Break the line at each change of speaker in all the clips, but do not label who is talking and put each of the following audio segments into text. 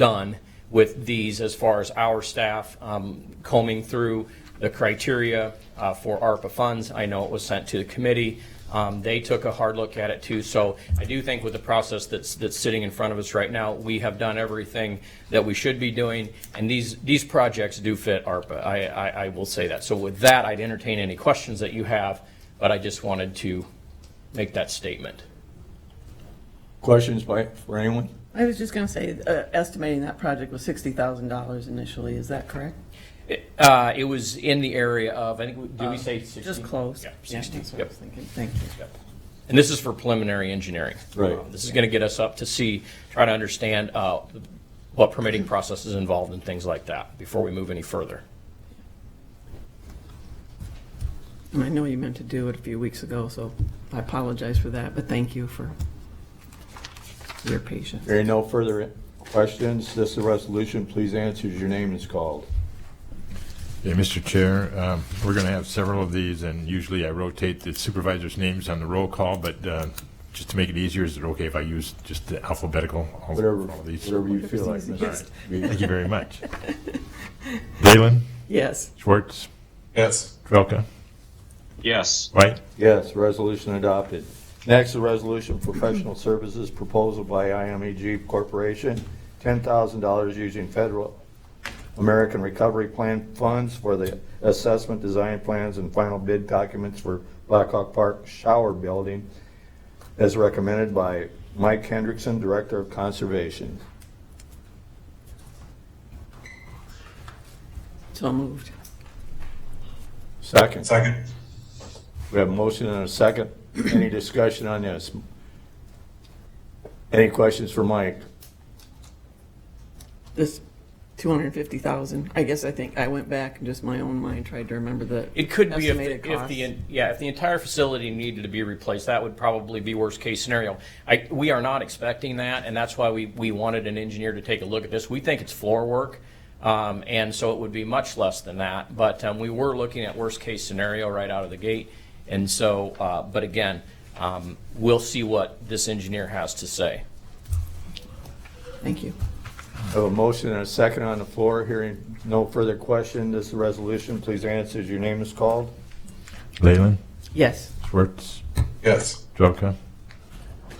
done with these as far as our staff um, combing through the criteria uh, for ARPA funds. I know it was sent to the committee. Um, They took a hard look at it too. So I do think with the process that's, that's sitting in front of us right now, we have done everything that we should be doing. And these, these projects do fit ARPA. I, I, I will say that. So with that, I'd entertain any questions that you have, but I just wanted to make that statement.
Questions by, for anyone?
I was just going to say, uh, estimating that project was $60,000 initially, is that correct?
Uh, It was in the area of, I think, did we say 60?
Uh, Just close.
Yeah,
Yeah,
60,
that's what I
yep.
was thinking. Thank you.
Yep. And this is for preliminary engineering.
Right.
Uh, This is going to get us up to see, try to understand uh, what permitting process is involved and things like that before we move any further.
And I know you meant to do it a few weeks ago, so I apologize for that, but thank you for your patience.
Hearing no further questions, this is a resolution, please answer as your name is called.
Yeah, Mr. Chair, um, we're going to have several of these, and usually I rotate the supervisors' names on the roll call, but uh, just to make it easier, is it okay if I use just the alphabetical? all-
Whatever,
all of these?
whatever you feel like.
Whatever's
Mr.
easiest.
Reed.
Thank you very much. Leyland,
Yes,
Schwartz,
Yes.
Trelka,
Yes.
White.
Yes, resolution adopted. Next, a resolution, professional services proposal by IMEG Corporation, $10,000 using federal American Recovery Plan funds for the assessment, design plans, and final bid documents for Blackhawk Park Shower Building, as recommended by Mike Hendrickson, Director of Conservation.
so moved.
Second.
Second.
We have a motion and a second. Any discussion on this? Any questions for Mike?
This 250,000, I guess I think I went back and just my own mind tried to remember the
It could be if,
estimated
the- if
cost.
the, yeah, if the entire facility needed to be replaced, that would probably be worst-case scenario. I, we are not expecting that, and that's why we, we wanted an engineer to take a look at this. We think it's floor work, um, and so it would be much less than that. But, um, we were looking at worst-case scenario right out of the gate. And so, uh, but again, um, we'll see what this engineer has to say.
Thank you.
Have a motion and a second on the floor, hearing no further question, this is a resolution, please answer as your name is called.
Leyland,
Yes,
Schwartz,
Yes.
Trelka,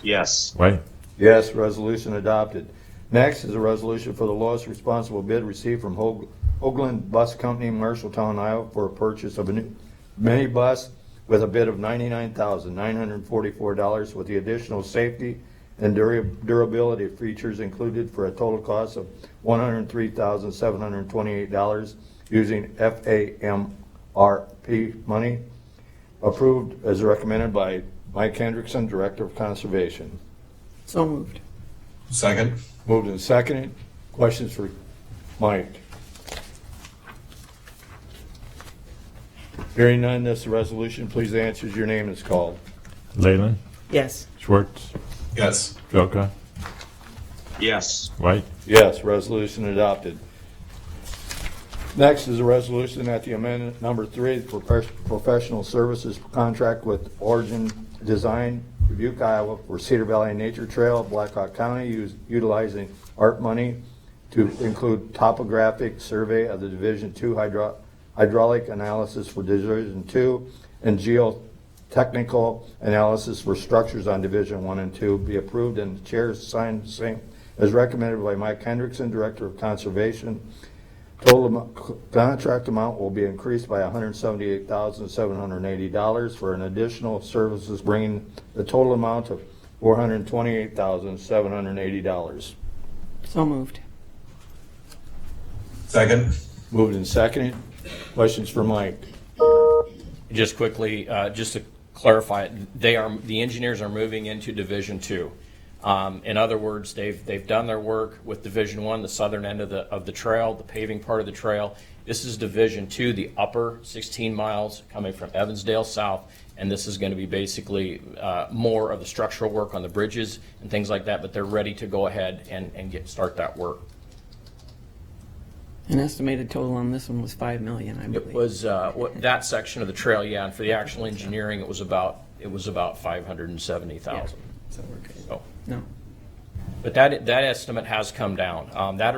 Yes.
White.
Yes, resolution adopted. Next is a resolution for the lowest responsible bid received from Hoag- Hoagland Bus Company, Marshalltown, Iowa, for a purchase of a new minibus with a bid of $99,944 with the additional safety and dura- durability features included for a total cost of $103,728 using FAMRP money, approved as recommended by Mike Hendrickson, Director of Conservation.
so moved.
Second.
Moved and seconded. Questions for Mike? Hearing none, this is a resolution. Please answer as your name is called.
Leyland,
Yes,
Schwartz,
Yes.
Trelka,
Yes.
White.
Yes, resolution adopted. Next is a resolution that the amendment number three, the profe- professional services contract with Origin Design Dubuque, Iowa for Cedar Valley Nature Trail, Blackhawk County, us- utilizing art money to include topographic survey of the Division Two hydro- hydraulic analysis for Division Two and geotechnical analysis for structures on Division One and Two be approved and the chair signed same as recommended by Mike Hendrickson, Director of Conservation. Total amo- contract amount will be increased by $178,780 for an additional services, bringing the total amount of $428,780.
so moved.
Second.
Moved and seconded. Questions for Mike?
Just quickly, uh, just to clarify, they are, the engineers are moving into Division Two. Um, In other words, they've, they've done their work with Division One, the southern end of the, of the trail, the paving part of the trail. This is Division Two, the upper 16 miles coming from Evansdale South, and this is going to be basically uh, more of the structural work on the bridges and things like that, but they're ready to go ahead and, and get, start that work.
An estimated total on this one was 5 million, I believe.
It was, uh, what- that section of the trail, yeah, and for the actual engineering, it was about, it was about 570,000. Oh.
So we're good.
So,
No.
But that, that estimate has come down. Um, That